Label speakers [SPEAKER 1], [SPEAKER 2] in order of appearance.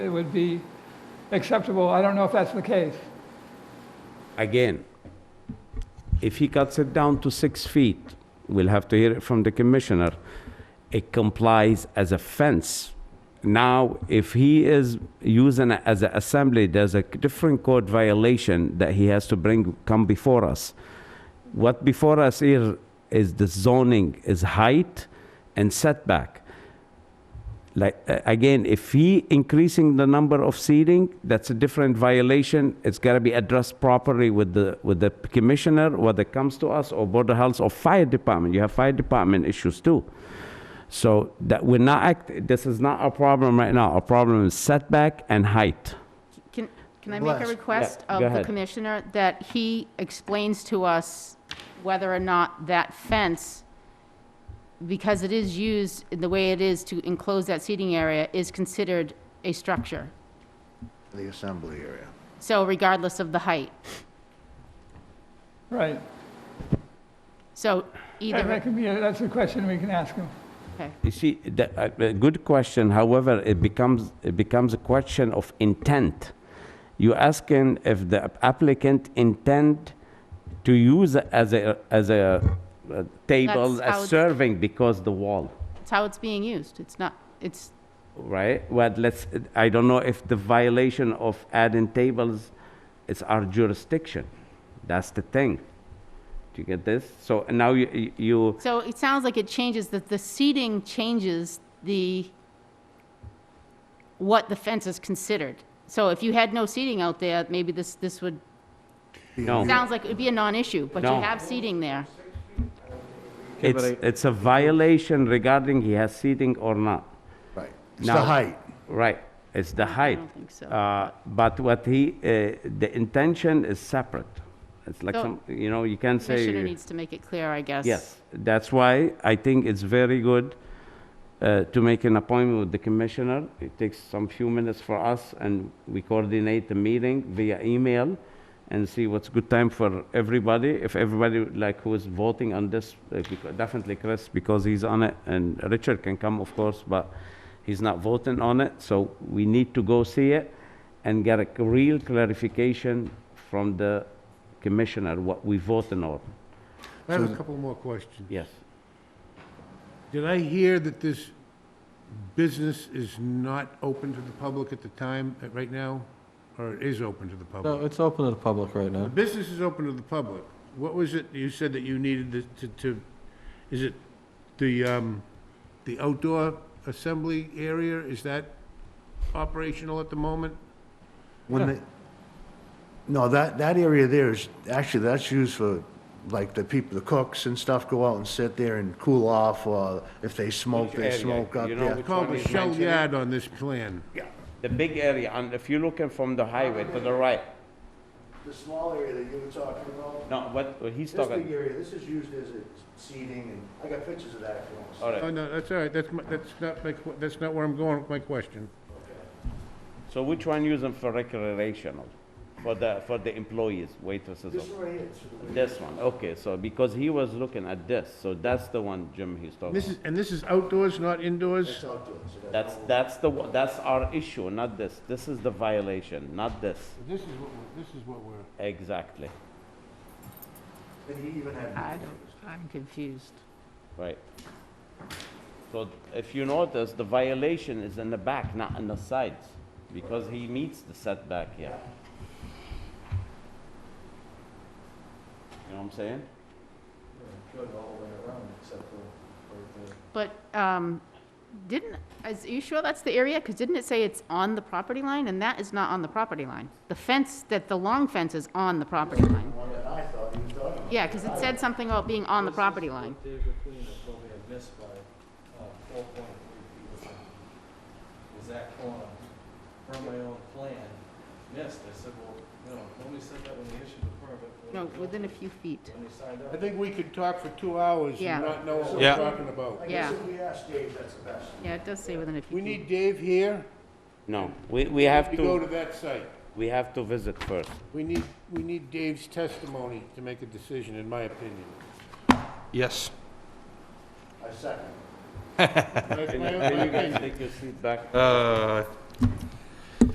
[SPEAKER 1] it would be acceptable. I don't know if that's the case.
[SPEAKER 2] Again, if he cuts it down to six feet, we'll have to hear it from the commissioner, it complies as a fence. Now, if he is using it as an assembly, there's a different code violation that he has to bring, come before us. What before us here is the zoning, is height and setback. Like, a- again, if he increasing the number of seating, that's a different violation. It's gotta be addressed properly with the, with the commissioner, whether it comes to us or border health or fire department. You have fire department issues too. So that we're not act, this is not our problem right now. Our problem is setback and height.
[SPEAKER 3] Can, can I make a
[SPEAKER 4] Bless.
[SPEAKER 3] request
[SPEAKER 2] Yeah,
[SPEAKER 3] of
[SPEAKER 2] go
[SPEAKER 3] the
[SPEAKER 2] ahead.
[SPEAKER 3] commissioner that he explains to us whether or not that fence, because it is used in the way it is to enclose that seating area, is considered a structure?
[SPEAKER 4] the assembly area.
[SPEAKER 3] So regardless of the height.
[SPEAKER 1] Right.
[SPEAKER 3] So
[SPEAKER 1] That that
[SPEAKER 3] either,
[SPEAKER 1] could be, a- that's a question we can ask him.
[SPEAKER 3] okay,
[SPEAKER 2] You see, the, a, a good question. However, it becomes it becomes a question of intent. You're asking if the applicant intend to use it as a as a, uh table,
[SPEAKER 3] That's how
[SPEAKER 2] as
[SPEAKER 3] it-
[SPEAKER 2] serving because the wall,
[SPEAKER 3] it's how it's being used. It's not, it's,
[SPEAKER 2] right? Well, let's. I don't know if the violation of adding tables is our jurisdiction. That's the thing. Do you get this? So now you you- you
[SPEAKER 3] so it sounds like it changes, that the seating changes the, what the fence is considered. So if you had no seating out there, maybe this, this would
[SPEAKER 2] no.
[SPEAKER 3] Sounds like it'd be a non-issue, but you
[SPEAKER 2] No.
[SPEAKER 3] have seating there.
[SPEAKER 2] It's, it's a violation regarding he has seating or not.
[SPEAKER 4] Right. It's the
[SPEAKER 2] Now-
[SPEAKER 4] height.
[SPEAKER 2] Right, it's the height.
[SPEAKER 3] think so.
[SPEAKER 2] Uh, But what he, uh, the intention is separate. It's like
[SPEAKER 3] So-
[SPEAKER 2] some, you know, you can't say.
[SPEAKER 3] Commissioner needs to make it clear, I guess.
[SPEAKER 2] Yes, that's why I think it's very good uh, to make an appointment with the commissioner. It takes some few minutes for us, and we coordinate the meeting via email and see what's good time for everybody. If everybody, would like, who is voting on this, uh, becau- definitely Chris, because he's on it, and Richard can come, of course, but he's not voting on it, so we need to go see it and get a c- real clarification from the commissioner, what we voting on.
[SPEAKER 5] I have a couple more questions.
[SPEAKER 2] Yes.
[SPEAKER 5] Did I hear that this business is not open to the public at the time, uh, right now? Or it is open to the
[SPEAKER 6] No,
[SPEAKER 5] public?
[SPEAKER 6] it's open to the public right now.
[SPEAKER 5] The business is open to the public. What was it, you said that you needed to- to, to, is it the, um, the outdoor assembly area? Is that operational at the moment?
[SPEAKER 4] When they, no, that, that area there is, actually, that's used for, like, the people, the cooks and stuff go out and sit there and cool off, or if they smoke,
[SPEAKER 2] Which
[SPEAKER 4] they
[SPEAKER 2] area?
[SPEAKER 4] smoke up
[SPEAKER 2] You know
[SPEAKER 4] there.
[SPEAKER 2] which-
[SPEAKER 5] Called
[SPEAKER 2] one
[SPEAKER 5] the
[SPEAKER 2] is
[SPEAKER 5] Shell
[SPEAKER 2] mentioned?
[SPEAKER 5] Yard on this plan.
[SPEAKER 2] Yeah, the big area, and if you're looking from the highway to the right,
[SPEAKER 4] The small area that you were talking about,
[SPEAKER 2] no, what, what he's
[SPEAKER 4] this big
[SPEAKER 2] talking,
[SPEAKER 4] area, this is used as a seating, and I got pictures of that if you want to see.
[SPEAKER 2] all
[SPEAKER 5] Oh,
[SPEAKER 2] right.
[SPEAKER 5] no, that's all right, that's, my- that's not, my que- that's not where I'm going with my question.
[SPEAKER 2] So which one using for recreational, for the, for the employees, waitresses?
[SPEAKER 4] This
[SPEAKER 2] or-
[SPEAKER 4] one right here, it's for the-
[SPEAKER 2] This one, okay, so because he was looking at this, so that's the one, Jim, he's talking.
[SPEAKER 5] This is, and this is outdoors, not indoors?
[SPEAKER 4] it's outdoors. it has
[SPEAKER 2] That's,
[SPEAKER 4] no-
[SPEAKER 2] that's the, one- that's our issue, not this, this is the violation, not this,
[SPEAKER 5] This is what, we're- this is what we're.
[SPEAKER 2] exactly,
[SPEAKER 4] And he even had.
[SPEAKER 3] I don't, I'm confused.
[SPEAKER 2] right. So if you notice, the violation is in the back, not in the sides, because he meets the setback here. You know what I'm saying?
[SPEAKER 4] Good all the way around, except for, for the.
[SPEAKER 3] But, um, didn't, is, are you sure that's the area? Because didn't it say it's on the property line? And that is not on the property line. The fence, that, the long fence is on the property line.
[SPEAKER 4] One that I thought he was talking about.
[SPEAKER 3] Yeah, because it said something about being on the property line.
[SPEAKER 7] David Queen is what we had missed by four point three feet or something. Was that corner from my own plan missed? I said, well, no, nobody said that when they issued the permit. when
[SPEAKER 3] No,
[SPEAKER 7] they built
[SPEAKER 3] within a
[SPEAKER 7] it,
[SPEAKER 3] few feet.
[SPEAKER 7] When they signed
[SPEAKER 5] I
[SPEAKER 7] up.
[SPEAKER 5] think we could talk for two hours
[SPEAKER 3] Yeah.
[SPEAKER 5] and not know what we're
[SPEAKER 7] Yeah.
[SPEAKER 5] talking about.
[SPEAKER 4] I guess
[SPEAKER 3] Yeah.
[SPEAKER 4] if we ask Dave, that's the best.
[SPEAKER 3] Yeah, it does say within a few feet.
[SPEAKER 5] We need Dave here.
[SPEAKER 2] No, we, we have
[SPEAKER 5] We go to
[SPEAKER 2] to,
[SPEAKER 5] that site.
[SPEAKER 2] we have to visit first.
[SPEAKER 5] We need, we need Dave's testimony to make a decision, in my opinion.
[SPEAKER 7] Yes.
[SPEAKER 4] I second.
[SPEAKER 5] That's my
[SPEAKER 2] Can you
[SPEAKER 5] own
[SPEAKER 2] guys
[SPEAKER 5] opinion.
[SPEAKER 2] take your seat back?
[SPEAKER 7] Uh,